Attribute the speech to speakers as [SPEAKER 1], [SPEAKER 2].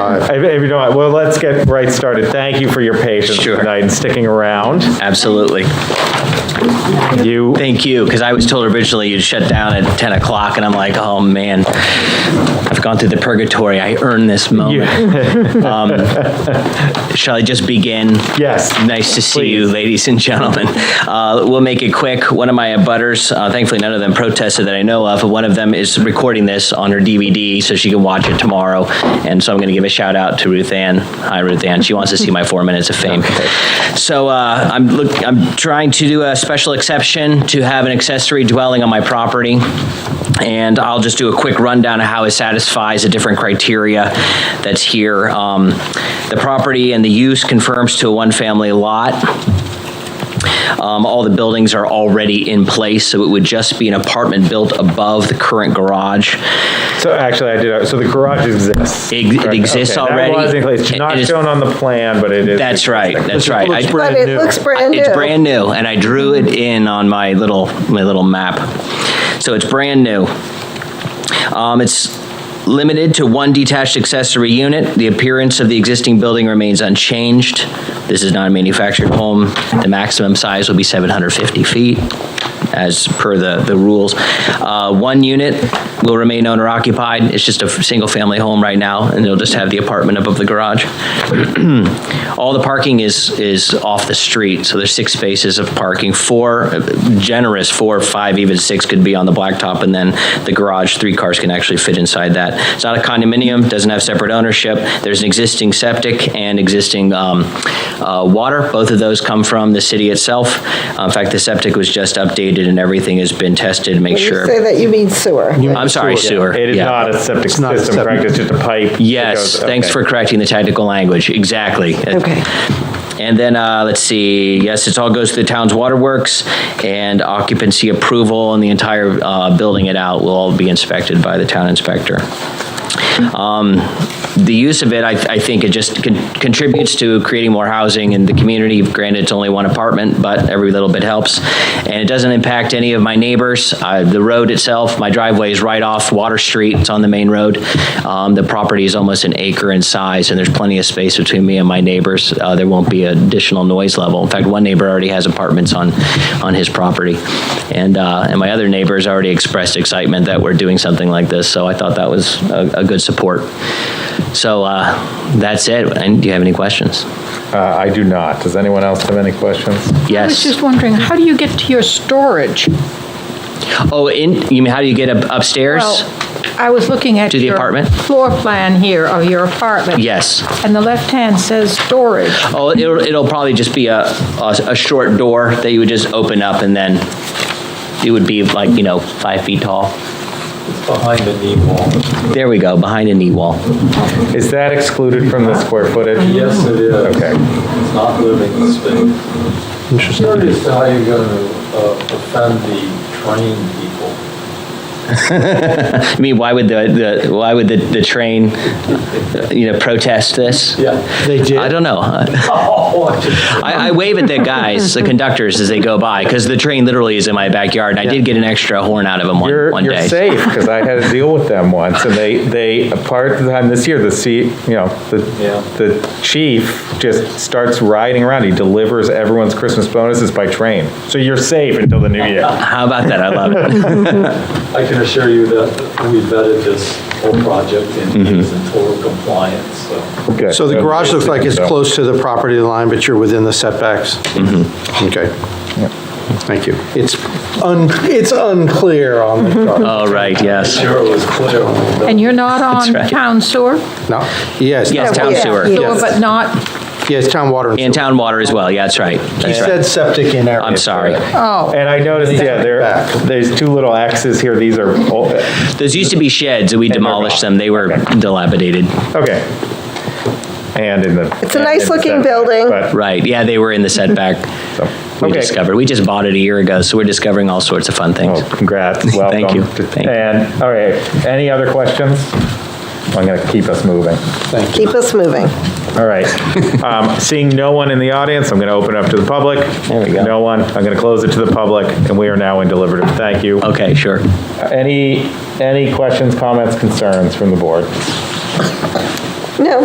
[SPEAKER 1] If if you don't, mind, well, let's get right started. Thank you for your patience
[SPEAKER 2] Sure.
[SPEAKER 1] tonight and sticking around.
[SPEAKER 2] Absolutely.
[SPEAKER 1] You,
[SPEAKER 2] Thank you, because I was told originally you'd shut down at 10 o'clock, and I'm like, oh, man, I've gone through the purgatory. I earned this moment. Um, Shall I just begin?
[SPEAKER 1] Yes.
[SPEAKER 2] Nice to see you,
[SPEAKER 1] Please.
[SPEAKER 2] ladies and gentlemen. Uh, We'll make it quick. One of my abutters, uh, thankfully, none of them protested that I know of. One of them is recording this on her DVD, so she can watch it tomorrow. And so I'm going to give a shout out to Ruth Ann. Hi, Ruth Ann. She wants to see my four minutes of fame. So uh, I'm look. I'm trying to do a special exception to have an accessory dwelling on my property. And I'll just do a quick rundown of how it satisfies the different criteria that's here. Um, The property and the use confirms to a one-family lot. Um, All the buildings are already in place, so it would just be an apartment built above the current garage.
[SPEAKER 1] so actually, I did, uh, so the garage exists.
[SPEAKER 2] It- it
[SPEAKER 1] correct?
[SPEAKER 2] exists
[SPEAKER 1] Okay, that
[SPEAKER 2] already.
[SPEAKER 1] was in place. It's
[SPEAKER 2] It-
[SPEAKER 1] not
[SPEAKER 2] it is-
[SPEAKER 1] shown on the plan, but it is.
[SPEAKER 2] That's right, that's right. I-
[SPEAKER 3] But it looks brand new.
[SPEAKER 2] It's brand new, and I drew it in on my little, my little map. So it's brand new. Um, It's limited to one detached accessory unit. The appearance of the existing building remains unchanged. This is not a manufactured home. The maximum size will be 750 feet, as per the, the rules. Uh, One unit will remain owner-occupied. It's just a f- single-family home right now, and it'll just have the apartment above the garage. All the parking is, is off the street, so there's six spaces of parking. Four, generous, four, five, even six could be on the blacktop, and then the garage, three cars can actually fit inside that. It's not a condominium, doesn't have separate ownership. There's an existing septic and existing um, uh, water. Both of those come from the city itself. Uh, In fact, the septic was just updated and everything has been tested to make
[SPEAKER 3] When
[SPEAKER 2] sure.
[SPEAKER 3] You say that you mean sewer.
[SPEAKER 2] I'm sorry, sewer.
[SPEAKER 1] It is
[SPEAKER 2] Yeah.
[SPEAKER 1] not a septic
[SPEAKER 4] not a
[SPEAKER 1] system,
[SPEAKER 4] septic.
[SPEAKER 1] correct? It's just a pipe. that
[SPEAKER 2] Yes,
[SPEAKER 1] goes-
[SPEAKER 2] thanks
[SPEAKER 1] okay.
[SPEAKER 2] for correcting the technical language, exactly.
[SPEAKER 3] Okay.
[SPEAKER 2] And then, uh, let's see, yes, it all goes to the town's waterworks, and occupancy approval and the entire uh, building it out will all be inspected by the town inspector. Um, The use of it, I I think it just con- contributes to creating more housing in the community. Granted, it's only one apartment, but every little bit helps. And it doesn't impact any of my neighbors. Uh, The road itself, my driveway is right off Water Street, it's on the main road. Um, The property is almost an acre in size, and there's plenty of space between me and my neighbors. Uh, There won't be additional noise level. In fact, one neighbor already has apartments on, on his property. And, uh, and my other neighbors already expressed excitement that we're doing something like this, so I thought that was a, a good support. So uh, that's it. And do you have any questions?
[SPEAKER 1] Uh, I do not. Does anyone else have any questions?
[SPEAKER 5] I was
[SPEAKER 2] Yes.
[SPEAKER 5] just wondering, how do you get to your storage?
[SPEAKER 2] Oh, in, you mean, how do you get up- upstairs?
[SPEAKER 5] Well, I was looking at
[SPEAKER 2] To the
[SPEAKER 5] your
[SPEAKER 2] apartment?
[SPEAKER 5] Floor plan here of your apartment.
[SPEAKER 2] Yes.
[SPEAKER 5] And the left hand says storage.
[SPEAKER 2] Oh, it'll, it'll probably just be a, a, a short door that you would just open up and then it would be like, you know, five feet tall.
[SPEAKER 6] behind the knee wall.
[SPEAKER 2] There we go, behind a knee wall.
[SPEAKER 1] Is that excluded from the square footage?
[SPEAKER 6] Yes, it is.
[SPEAKER 1] Okay.
[SPEAKER 6] It's not living space.
[SPEAKER 4] Interesting.
[SPEAKER 6] Curious how you're going to offend the train people.
[SPEAKER 2] I mean, why would the, the, why would the, the train, you know, protest this?
[SPEAKER 6] Yeah.
[SPEAKER 4] They
[SPEAKER 2] I don't know.
[SPEAKER 6] Oh, I just-
[SPEAKER 2] I, I wave at the guys, the conductors, as they go by, because the train literally is in my backyard, and I did get an extra horn out of them one,
[SPEAKER 1] You're,
[SPEAKER 2] one
[SPEAKER 1] you're
[SPEAKER 2] day.
[SPEAKER 1] safe because I had a deal with them once, and they they part of the time this year the C, you know the
[SPEAKER 6] Yeah.
[SPEAKER 1] the chief just starts riding around. He delivers everyone's Christmas bonuses by train, so you're safe until the new year.
[SPEAKER 2] How about that? I love it.
[SPEAKER 6] I can assure you that we vetted this whole project and it is in total compliance, so.
[SPEAKER 1] Good.
[SPEAKER 4] So the garage looks like it's close to the property line, but you're within the setbacks? Okay. Thank you. It's un, it's unclear on the chart.
[SPEAKER 2] Oh, right, yes.
[SPEAKER 6] Sure, it was clear.
[SPEAKER 5] And you're not on
[SPEAKER 2] Oh, right.
[SPEAKER 5] town sewer?
[SPEAKER 4] No, yes,
[SPEAKER 2] Yes,
[SPEAKER 3] Yeah,
[SPEAKER 2] town
[SPEAKER 3] yeah.
[SPEAKER 2] sewer.
[SPEAKER 5] Sewer,
[SPEAKER 4] Yes.
[SPEAKER 5] but not,
[SPEAKER 4] yes, town water and
[SPEAKER 2] And
[SPEAKER 4] sewer.
[SPEAKER 2] town water as well, yeah, that's right.
[SPEAKER 4] He
[SPEAKER 2] That's right.
[SPEAKER 4] said septic in area.
[SPEAKER 2] I'm sorry.
[SPEAKER 5] oh,
[SPEAKER 1] And I noticed, yeah, there
[SPEAKER 4] Back.
[SPEAKER 1] there's two little X's here. These are old,
[SPEAKER 2] Those used to be sheds, and we
[SPEAKER 1] they're
[SPEAKER 2] demolished them. They were
[SPEAKER 1] Okay.
[SPEAKER 2] dilapidated.
[SPEAKER 1] okay. And in the
[SPEAKER 3] It's
[SPEAKER 1] and
[SPEAKER 3] a
[SPEAKER 1] in
[SPEAKER 3] nice
[SPEAKER 1] the setback,
[SPEAKER 3] looking building.
[SPEAKER 1] but-
[SPEAKER 2] Right, yeah, they were in the setback.
[SPEAKER 1] so,
[SPEAKER 2] We
[SPEAKER 1] okay.
[SPEAKER 2] discovered, we just bought it a year ago, so we're discovering all sorts of fun things.
[SPEAKER 1] Oh, congrats. Welcome.
[SPEAKER 2] Thank you. Thank you.
[SPEAKER 1] And all right, any other questions? I'm going to keep us moving.
[SPEAKER 3] Keep us moving.
[SPEAKER 1] All right. Um, Seeing no one in the audience, I'm going to open up to the public.
[SPEAKER 2] There we go.
[SPEAKER 1] No one. I'm going to close it to the public, and we are now in deliberative. Thank you.
[SPEAKER 2] Okay, sure.
[SPEAKER 1] Any, any questions, comments, concerns from the board?
[SPEAKER 3] No,